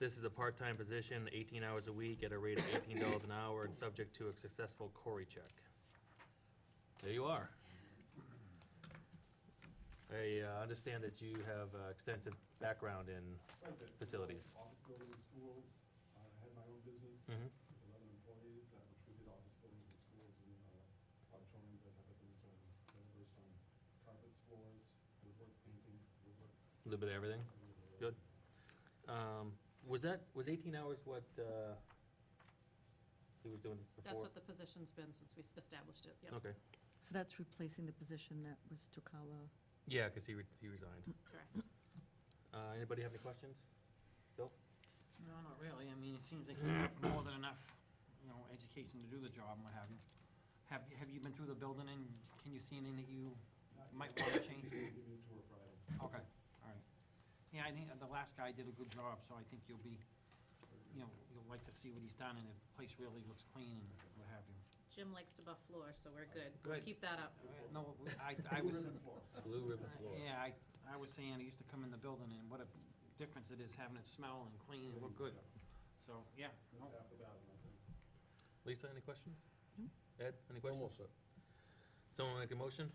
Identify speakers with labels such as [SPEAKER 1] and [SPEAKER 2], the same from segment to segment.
[SPEAKER 1] This is a part-time position, 18 hours a week at a rate of $18 an hour and subject to a successful Cory check. There you are. I uh, understand that you have uh, extensive background in,
[SPEAKER 2] Quite a bit.
[SPEAKER 1] Facilities.
[SPEAKER 2] Office buildings, schools, Uh, I had my own business,
[SPEAKER 1] Mhm.
[SPEAKER 2] with eleven employees, uh, which we did office buildings and schools and uh, auditoriums, I have things on, doors on carpets, floors, woodwork painting, woodwork.
[SPEAKER 1] a little bit of everything.
[SPEAKER 2] uh,
[SPEAKER 1] Good. Um, Was that, was 18 hours what uh, he was doing this before?
[SPEAKER 3] That's what the position's been since we s- established it, yep,
[SPEAKER 1] Okay,
[SPEAKER 4] So that's replacing the position that was Tocala.
[SPEAKER 1] yeah, because he re- he resigned.
[SPEAKER 3] correct.
[SPEAKER 1] Uh, Anybody have any questions?
[SPEAKER 5] No, not really. I mean, it seems like you have more than enough, you know, education to do the job and what have you. Have, have you been through the building and can you see anything that you,
[SPEAKER 2] Not
[SPEAKER 5] Might
[SPEAKER 2] yet.
[SPEAKER 5] wanna change.
[SPEAKER 2] Give me a tour Friday.
[SPEAKER 5] okay, all right. Yeah, I think the last guy did a good job, so I think you'll be, you know, you'll like to see what he's done and the place really looks clean and what have you.
[SPEAKER 3] Jim likes to buff floors, so we're good.
[SPEAKER 5] Good.
[SPEAKER 3] Keep that up.
[SPEAKER 5] Uh, No, I, I was,
[SPEAKER 2] Ribbon floor.
[SPEAKER 1] Blue ribbon floor.
[SPEAKER 5] yeah, I, I was saying, I used to come in the building and what a difference it is having it smell and clean and look good. So, yeah, no,
[SPEAKER 2] That's half the battle, I think.
[SPEAKER 1] Lisa, any questions?
[SPEAKER 4] No.
[SPEAKER 1] Ed, any questions? Someone make a motion?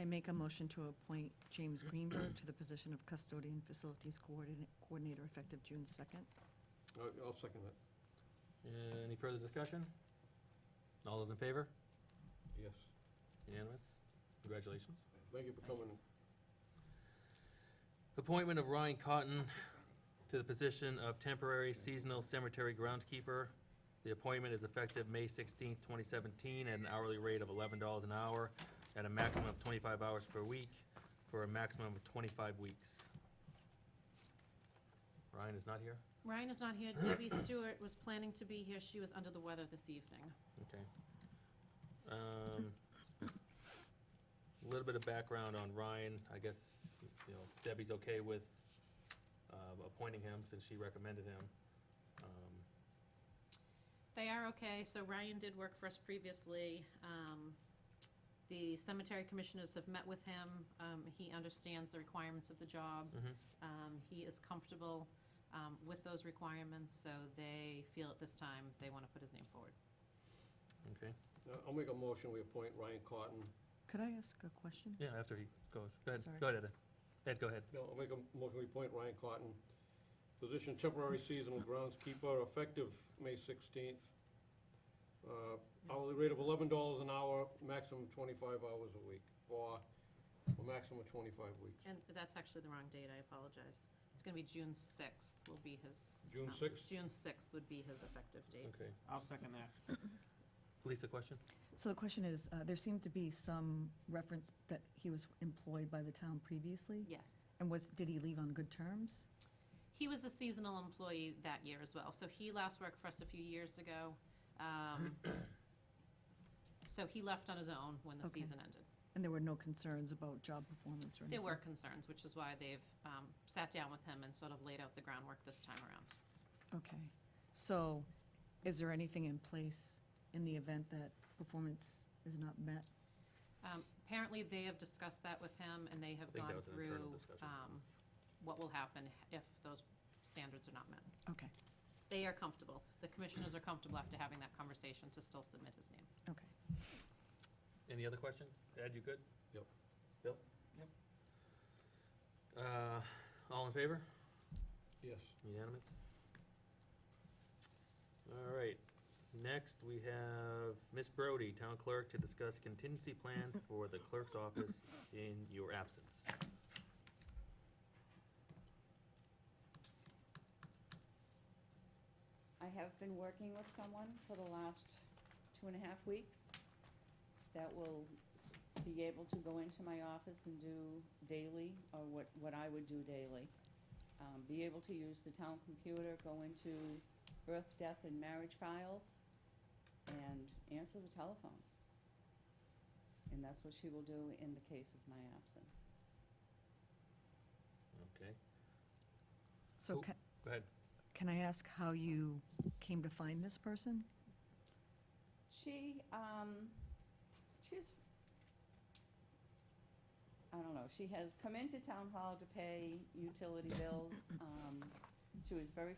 [SPEAKER 4] I make a motion to appoint James Greenberg to the position of custodian facilities coordinate- coordinator effective June 2nd.
[SPEAKER 6] I'll Uh, I'll second that,
[SPEAKER 1] Uh, Any further discussion? All those in favor?
[SPEAKER 6] yes.
[SPEAKER 1] Unanimous? Congratulations.
[SPEAKER 6] Thank you for coming.
[SPEAKER 1] Appointment of Ryan Cotton to the position of temporary seasonal cemetery groundskeeper. The appointment is effective May 16, 2017, at an hourly rate of $11 an hour, at a maximum of 25 hours per week, for a maximum of 25 weeks. Ryan is not here?
[SPEAKER 3] Ryan is not here. Debbie Stewart was planning to be here. She was under the weather this evening.
[SPEAKER 1] Okay. Um, A little bit of background on Ryan, I guess, you know, Debbie's okay with uh, appointing him since she recommended him. Um,
[SPEAKER 3] They are okay, so Ryan did work for us previously. Um, The cemetery commissioners have met with him. Um, He understands the requirements of the job.
[SPEAKER 1] mhm.
[SPEAKER 3] Um, He is comfortable um, with those requirements, so they feel at this time they want to put his name forward.
[SPEAKER 1] Okay,
[SPEAKER 6] Uh, I'll make a motion, we appoint Ryan Cotton.
[SPEAKER 4] Could I ask a question?
[SPEAKER 1] yeah, after he goes, go ahead,
[SPEAKER 4] Sorry.
[SPEAKER 1] go ahead, Ed. Ed, go ahead.
[SPEAKER 6] No, I'll make a motion, we appoint Ryan Cotton, position temporary seasonal groundskeeper, effective May 16th. Uh, Hourly rate of $11 an hour, maximum 25 hours a week, for a maximum of 25 weeks.
[SPEAKER 3] And that's actually the wrong date, I apologize. It's going to be June 6th will be his.
[SPEAKER 6] June
[SPEAKER 3] um,
[SPEAKER 6] 6th?
[SPEAKER 3] June 6th would be his effective date.
[SPEAKER 1] Okay.
[SPEAKER 5] I'll second that.
[SPEAKER 1] Lisa, question?
[SPEAKER 4] So the question is, uh, there seemed to be some reference that he was employed by the town previously?
[SPEAKER 3] Yes.
[SPEAKER 4] And was, did he leave on good terms?
[SPEAKER 3] He was a seasonal employee that year as well, so he last worked for us a few years ago. Um, So he left on his own when the
[SPEAKER 4] Okay.
[SPEAKER 3] season ended.
[SPEAKER 4] And there were no concerns about job performance or anything?
[SPEAKER 3] There were concerns, which is why they've um, sat down with him and sort of laid out the groundwork this time around.
[SPEAKER 4] Okay. So is there anything in place in the event that performance is not met?
[SPEAKER 3] Um, Apparently, they have discussed that with him, and they have
[SPEAKER 1] think that
[SPEAKER 3] gone
[SPEAKER 1] was an internal
[SPEAKER 3] through
[SPEAKER 1] discussion.
[SPEAKER 3] um, what will happen if those standards are not met.
[SPEAKER 4] Okay,
[SPEAKER 3] They are comfortable. The commissioners are comfortable after having that conversation to still submit his name.
[SPEAKER 4] okay.
[SPEAKER 1] Any other questions? Ed, you good?
[SPEAKER 6] Yep.
[SPEAKER 1] Bill?
[SPEAKER 5] Yep.
[SPEAKER 1] Uh, all in favor?
[SPEAKER 6] Yes.
[SPEAKER 1] Unanimous? All right, next we have Miss Brody, Town Clerk, to discuss contingency plan for the clerk's office in your absence.
[SPEAKER 7] I have been working with someone for the last two and a half weeks that will be able to go into my office and do daily, or what, what I would do daily. Um, be able to use the town computer, go into birth, death, and marriage files, and answer the telephone. And that's what she will do in the case of my absence.
[SPEAKER 1] Okay,
[SPEAKER 4] So
[SPEAKER 1] Who-
[SPEAKER 4] can,
[SPEAKER 1] go ahead.
[SPEAKER 4] can I ask how you came to find this person?
[SPEAKER 7] She, um, she's, I don't know, she has come into town hall to pay utility bills. Um, she was very